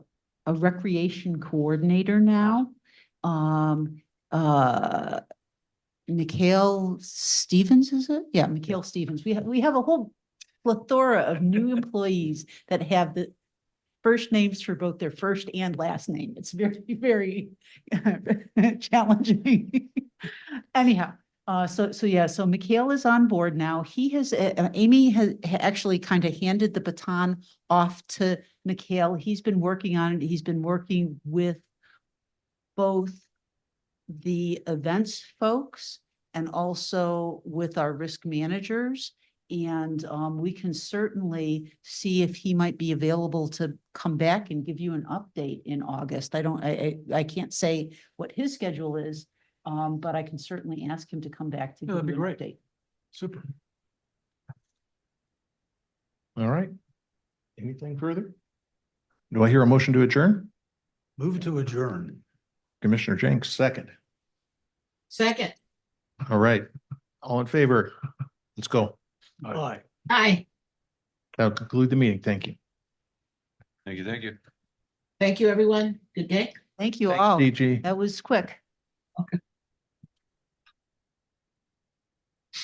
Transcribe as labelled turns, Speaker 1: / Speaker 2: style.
Speaker 1: a recreation coordinator now. Um, uh, Mikhail Stevens, is it? Yeah, Mikhail Stevens. We have, we have a whole plethora of new employees that have the first names for both their first and last name. It's very, very challenging. Anyhow, uh, so, so yeah, so Mikhail is on board now. He has, uh, uh, Amy has ha- actually kind of handed the baton off to Mikhail. He's been working on it. He's been working with both the events folks and also with our risk managers. And um, we can certainly see if he might be available to come back and give you an update in August. I don't, I, I, I can't say what his schedule is, um, but I can certainly ask him to come back to
Speaker 2: Yeah, that'd
Speaker 1: give
Speaker 2: be
Speaker 1: you an
Speaker 2: great.
Speaker 1: update.
Speaker 2: Super. All right. Anything further?
Speaker 3: Do I hear a motion to adjourn?
Speaker 2: Move to adjourn.
Speaker 3: Commissioner Jenks, second.
Speaker 4: Second,
Speaker 3: All right. All in favor? Let's go.
Speaker 2: Aye.
Speaker 4: aye.
Speaker 3: That'll conclude the meeting. Thank you.
Speaker 5: Thank you, thank you.
Speaker 4: Thank you, everyone. Good day.
Speaker 1: Thank you
Speaker 3: Thanks,
Speaker 1: all.
Speaker 3: DG.
Speaker 1: That was quick.